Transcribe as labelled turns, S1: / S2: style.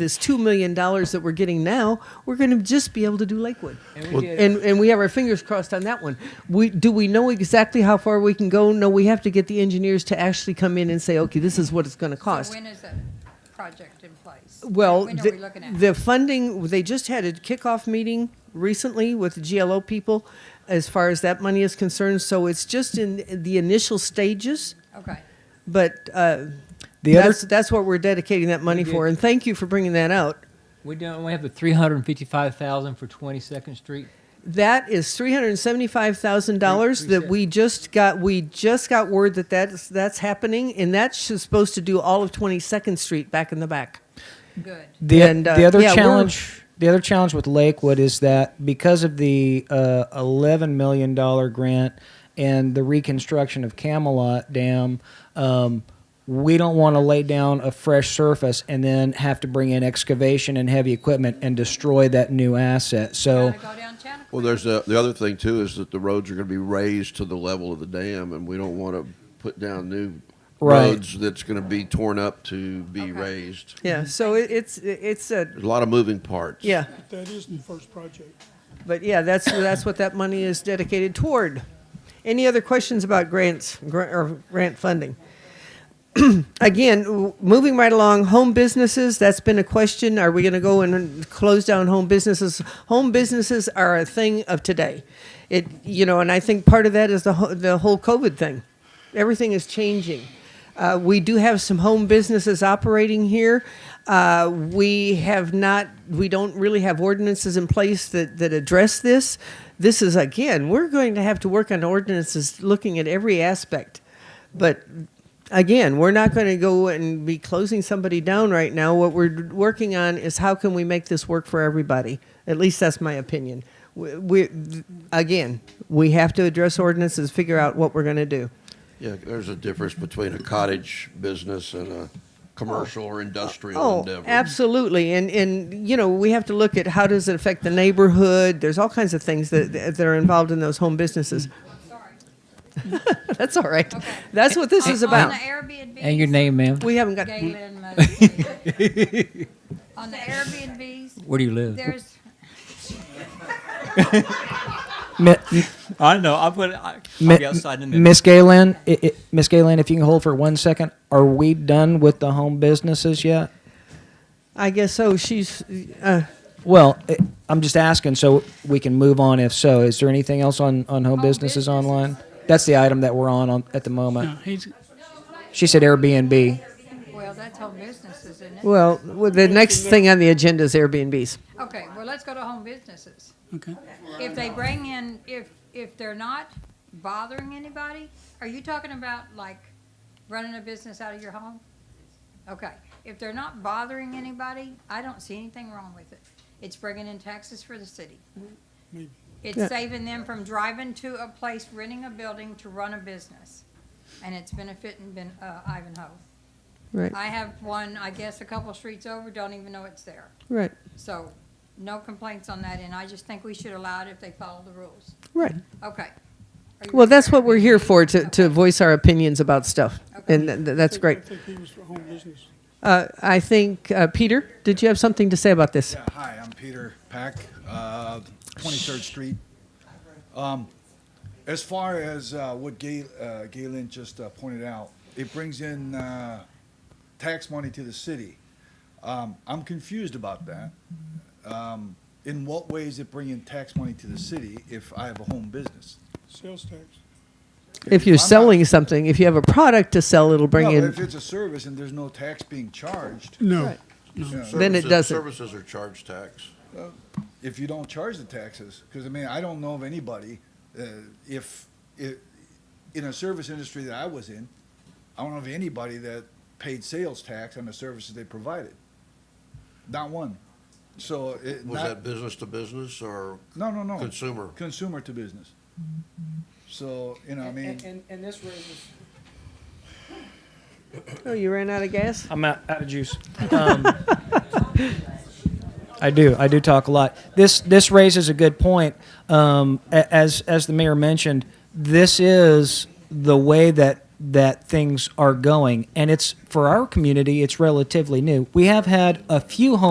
S1: this two million dollars that we're getting now, we're going to just be able to do Lakewood, and
S2: Well-
S1: we, and, we have our fingers crossed on that one. We do we know exactly how far we can go? No, we have to get the engineers to actually come in and say, okay, this is what it's going to cost.
S3: So when is that project in place?
S1: Well,
S3: When are
S1: the,
S3: we looking at?
S1: the funding, they just had a kickoff meeting recently with the GLO people as far as that money is concerned. So it's just in the initial stages,
S3: Okay.
S1: but uh,
S2: The other-
S1: that's, that's what we're dedicating that money for. And thank you for bringing that out.
S4: We don't, we have the three hundred and fifty-five thousand for Twenty-second Street.
S1: That is three hundred seventy-five thousand dollars that we just got. We just got word that that's that's happening, and that's just supposed to do all of Twenty-second Street back in the back.
S3: Good.
S2: The,
S1: And, uh,
S2: the other
S1: yeah, we're-
S2: challenge, the other challenge with Lakewood is that because of the uh, eleven million dollar grant and the reconstruction of Camelot Dam, um, we don't want to lay down a fresh surface and then have to bring in excavation and heavy equipment and destroy that new asset. So
S3: Gotta go down Chanticleer.
S5: Well, there's the, the other thing too is that the roads are going to be raised to the level of the dam, and we don't want to put down new
S2: Right.
S5: roads that's going to be torn up to be
S3: Okay.
S5: raised.
S1: Yeah, so it, it's it's a
S5: There's a lot of moving parts.
S1: yeah,
S6: That is the first project.
S1: but yeah, that's that's what that money is dedicated toward. Any other questions about grants grant, or grant funding? Again, w- moving right along, home businesses, that's been a question. Are we going to go and close down home businesses? Home businesses are a thing of today. It, you know, and I think part of that is the, ho- the whole COVID thing. Everything is changing. Uh, we do have some home businesses operating here. Uh, we have not, we don't really have ordinances in place that, that address this. This is, again, we're going to have to work on ordinances looking at every aspect. But again, we're not going to go and be closing somebody down right now. What we're working on is how can we make this work for everybody? At least that's my opinion. We, we again, we have to address ordinances, figure out what we're going to do.
S5: Yeah, there's a difference between a cottage business and a commercial or industrial
S1: Oh,
S5: endeavor.
S1: absolutely, and and you know we have to look at how does it affect the neighborhood. There's all kinds of things that that are involved in those home businesses.
S3: Sorry.
S1: That's all right.
S3: Okay.
S1: That's what this is
S3: On-
S1: about.
S3: On the Airbnb.
S4: And your name, ma'am?
S1: We haven't got.
S3: Galen Mosley. On the Airbnbs,
S4: Where do you live?
S3: there's,
S2: Mi-
S7: I know. I'm gonna. I, I'll
S2: Mi-
S7: be outside in a minute.
S2: Miss Galen, i- i- Miss Galen, if you can hold for one second, are we done with the home businesses yet?
S1: I guess so. She's. Uh,
S2: Well, i- I'm just asking so we can move on if so. Is there anything else on, on home businesses online? That's the item that we're on, on at the moment.
S6: Uh, He's,
S2: She said Airbnb.
S3: well, that's home businesses, isn't it?
S1: well, the next thing on the agenda is Airbnbs.
S3: Okay, well, let's go to home businesses.
S6: okay.
S3: If they bring in, if, if they're not bothering anybody, are you talking about like running a business out of your home? Okay, if they're not bothering anybody, I don't see anything wrong with it. It's bringing in taxes for the city. It's
S1: Yeah.
S3: saving them from driving to a place, renting a building to run a business. And it's benefiting Ben- uh, Ivanhoe.
S1: Right.
S3: I have one, I guess, a couple streets over, don't even know it's there.
S1: Right.
S3: So, no complaints on that, and I just think we should allow it if they follow the rules.
S1: Right.
S3: Okay. Are you
S1: Well,
S3: ready
S1: that's
S3: for
S1: what we're here
S3: Airbnb?
S1: for to, to
S3: Okay.
S1: voice our opinions about stuff.
S3: Okay.
S1: And th- th- that's great.
S6: I think he was for home business.
S1: Uh, I think, uh, Peter, did you have something to say about this?
S8: Yeah, hi, I'm Peter Pack, uh, 23rd Street. Um, As far as uh, what Ga- uh, Galen just uh, pointed out, it brings in uh, tax money to the city. Um, I'm confused about that. Um, In what way is it bringing tax money to the city if I have a home business?
S6: Sales tax.
S1: If you're
S8: I'm not-
S1: selling something, if you have a product to sell, it'll bring
S8: No,
S1: in.
S8: if it's a service and there's no tax being charged,
S6: No.
S8: you know,
S1: Then it
S5: Services-
S1: doesn't.
S5: Services are charge tax.
S8: if you don't charge the taxes, because I mean, I don't know of anybody, uh, if, i in a service industry that I was in, I don't know of anybody that paid sales tax on the services they provided. Not one. So it,
S5: Was that
S8: not,
S5: business to business or
S8: no, no, no.
S5: consumer?
S8: Consumer to business. So, you know, I mean,
S2: and this raises.
S1: Oh, you ran out of gas?
S2: I'm out, out of juice. Um, I do. I do talk a lot. This this raises a good point. Um, a- as as the mayor mentioned, this is the way that that things are going, and it's for our community. It's relatively new. We have had a few home.